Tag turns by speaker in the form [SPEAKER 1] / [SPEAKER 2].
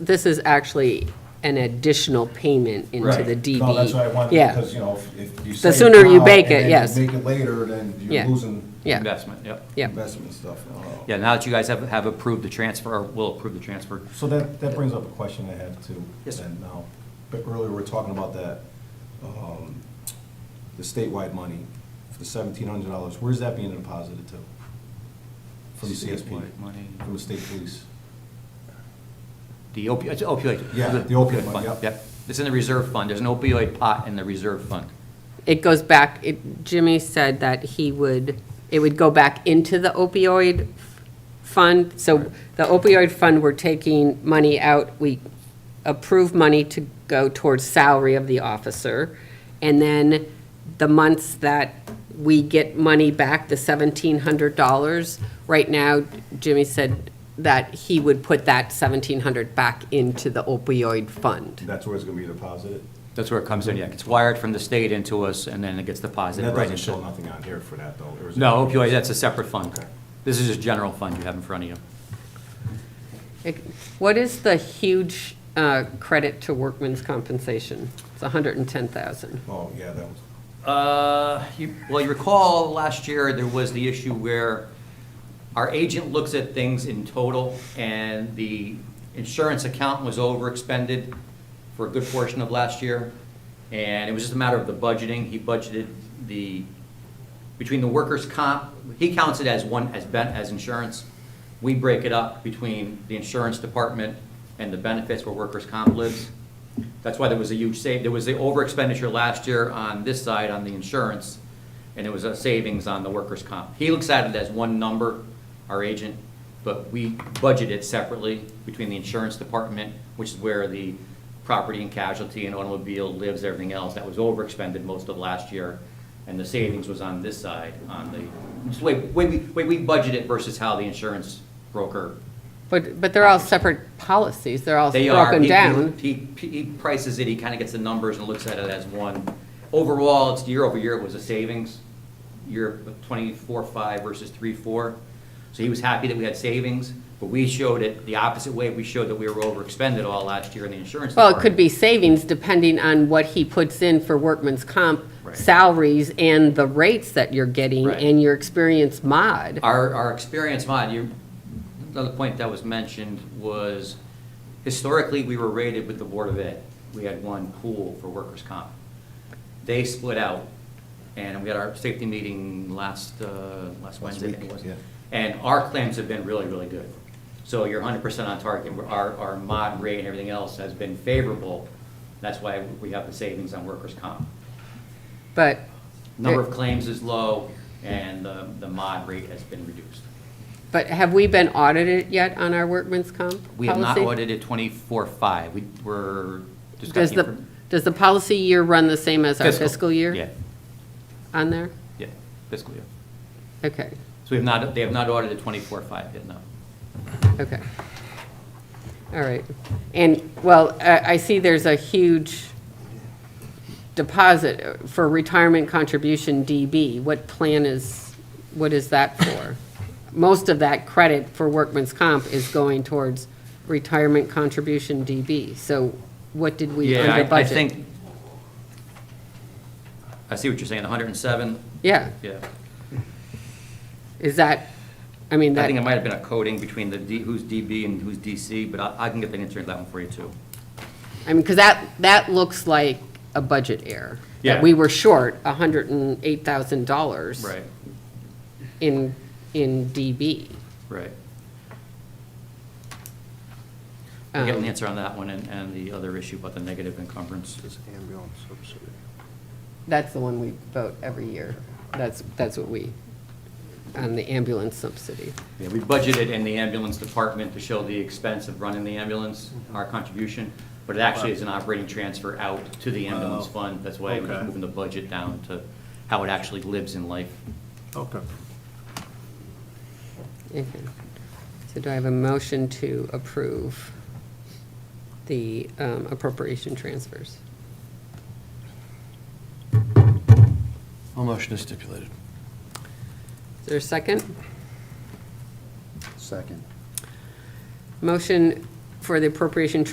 [SPEAKER 1] This is actually an additional payment into
[SPEAKER 2] Right.
[SPEAKER 1] the DB.
[SPEAKER 2] No, that's what I wanted,
[SPEAKER 1] Yeah.
[SPEAKER 2] because, you know, if- if you say.
[SPEAKER 1] sooner you
[SPEAKER 2] now
[SPEAKER 1] bake
[SPEAKER 2] and
[SPEAKER 1] it,
[SPEAKER 2] then you
[SPEAKER 1] yes.
[SPEAKER 2] Make it later, then
[SPEAKER 1] Yeah.
[SPEAKER 2] you're losing
[SPEAKER 1] Yeah,
[SPEAKER 3] Investment, yep.
[SPEAKER 1] yeah.
[SPEAKER 2] investment and stuff. and all.
[SPEAKER 3] Yeah, now that you guys have, have approved the transfer, or will approve the transfer,
[SPEAKER 2] So that, that brings up a question I had too.
[SPEAKER 3] Yes, sir.
[SPEAKER 2] And now, but earlier we were talking about that, um, the statewide money, for the seventeen hundred dollars, where's that being deposited to? From CSP?
[SPEAKER 3] Statewide money.
[SPEAKER 2] From the state police?
[SPEAKER 3] the opioid, it's opioid.
[SPEAKER 2] Yeah, the opioid fund, yep.
[SPEAKER 3] Yep, it's in the reserve fund, there's an opioid pot in the reserve fund.
[SPEAKER 1] It goes back, it- Jimmy said that he would, it would go back into the opioid fund. So the opioid fund, we're taking money out, we approve money to go towards salary of the officer. And then the months that we get money back, the seventeen hundred dollars, right now, Jimmy said that he would put that seventeen hundred back into the opioid fund.
[SPEAKER 2] That's where it's gonna be deposited?
[SPEAKER 3] That's where it comes in, yeah, it's wired from the state into us, and then it gets
[SPEAKER 2] And
[SPEAKER 3] deposited
[SPEAKER 2] that
[SPEAKER 3] right
[SPEAKER 2] doesn't show
[SPEAKER 3] into.
[SPEAKER 2] nothing on here for that though. or is it?
[SPEAKER 3] No, opioid, that's a separate fund.
[SPEAKER 2] Okay.
[SPEAKER 3] This is just general fund you have in front of you.
[SPEAKER 1] It- What is the huge uh, credit to workman's compensation? It's 110,000.
[SPEAKER 2] Oh, yeah, that was,
[SPEAKER 3] Uh, you- Well, you recall, last year, there was the issue where our agent looks at things in total, and the insurance account was overexpended for a good portion of last year, and it was just a matter of the budgeting. He budgeted the, between the workers' comp, he counts it as one, as ben, as insurance. We break it up between the insurance department and the benefits where workers' comp lives. That's why there was a huge save, there was the over expenditure last year on this side on the insurance, and it was a savings on the workers' comp. He looks at it as one number, our agent, but we budget it separately between the insurance department, which is where the property and casualty and automobile lives, everything else, that was over expended most of last year, and the savings was on this side, on the, it's the way, way we, way we budget it versus how the insurance broker
[SPEAKER 1] But, but they're all separate policies, they're all
[SPEAKER 3] they are.
[SPEAKER 1] broken
[SPEAKER 3] He-
[SPEAKER 1] down.
[SPEAKER 3] He, he he prices it, he kind of gets the numbers and looks at it as one. Overall, it's year over year, it was a savings, year twenty-four, five versus three, four. So he was happy that we had savings, but we showed it the opposite way. We showed that we were over expended all last year in the insurance.
[SPEAKER 1] Well, it could
[SPEAKER 3] department.
[SPEAKER 1] be savings depending on what he puts in for workman's comp
[SPEAKER 3] Right.
[SPEAKER 1] salaries and the rates that you're getting
[SPEAKER 3] Right.
[SPEAKER 1] and your experience mod.
[SPEAKER 3] Our, our experience mod, you, another point that was mentioned was historically, we were rated with the Board of Ed. We had one pool for workers' comp. They split out, and we had our safety meeting last, uh, last Wednesday, I think it
[SPEAKER 2] week,
[SPEAKER 3] was.
[SPEAKER 2] yeah.
[SPEAKER 3] And our claims have been really, really good. So you're hundred percent on target. We're- Our, our mod rate and everything else has been favorable. That's why we have the savings on workers' comp.
[SPEAKER 1] But
[SPEAKER 3] Number of claims is low, and the, the mod rate has been reduced.
[SPEAKER 1] But have we been audited yet on our workman's comp policy?
[SPEAKER 3] We have not audited twenty-four five, we were just got
[SPEAKER 1] Does
[SPEAKER 3] the.
[SPEAKER 1] the, does the policy year run the same as our
[SPEAKER 3] infor-
[SPEAKER 1] fiscal year?
[SPEAKER 3] Yeah,
[SPEAKER 1] On there?
[SPEAKER 3] yeah, fiscal year.
[SPEAKER 1] Okay,
[SPEAKER 3] So we have not, they have not audited twenty-four five yet, no.
[SPEAKER 1] okay. All right. And, well, I, I see there's a huge deposit for retirement contribution DB. What plan is, what is that for? Most of that credit for workman's comp is going towards retirement contribution DB. So what did we
[SPEAKER 3] Yeah,
[SPEAKER 1] under budget?
[SPEAKER 3] I- I think, I see what you're saying, hundred and seven,
[SPEAKER 1] Yeah,
[SPEAKER 3] yeah.
[SPEAKER 1] is that, I mean,
[SPEAKER 3] I
[SPEAKER 1] that,
[SPEAKER 3] think it might have been a coding between the D, who's DB and who's DC, but I, I can get the answer to that one for you too.
[SPEAKER 1] I mean, because that, that looks like a budget error.
[SPEAKER 3] Yeah.
[SPEAKER 1] That we were short $108,000. in, in DB.
[SPEAKER 3] right. We'll get an
[SPEAKER 1] Um,
[SPEAKER 3] answer on that one and, and the other issue about the negative encumbrances.
[SPEAKER 4] ambulance subsidy.
[SPEAKER 1] That's the one we vote every year. That's, that's what we, on the ambulance subsidy.
[SPEAKER 3] Yeah, we budgeted in the ambulance department to show the expense of running the ambulance,
[SPEAKER 4] Mm-hmm.
[SPEAKER 3] our contribution, but it actually is an operating transfer out to the ambulance
[SPEAKER 4] Wow.
[SPEAKER 3] fund. That's why we're
[SPEAKER 4] Okay.
[SPEAKER 3] moving the budget down to how it actually lives in life.
[SPEAKER 4] Okay.
[SPEAKER 1] Okay. So do I have a motion to approve the um, appropriation transfers?
[SPEAKER 4] All motion is stipulated.
[SPEAKER 1] Is there a second?
[SPEAKER 4] Second.
[SPEAKER 1] Motion for the appropriation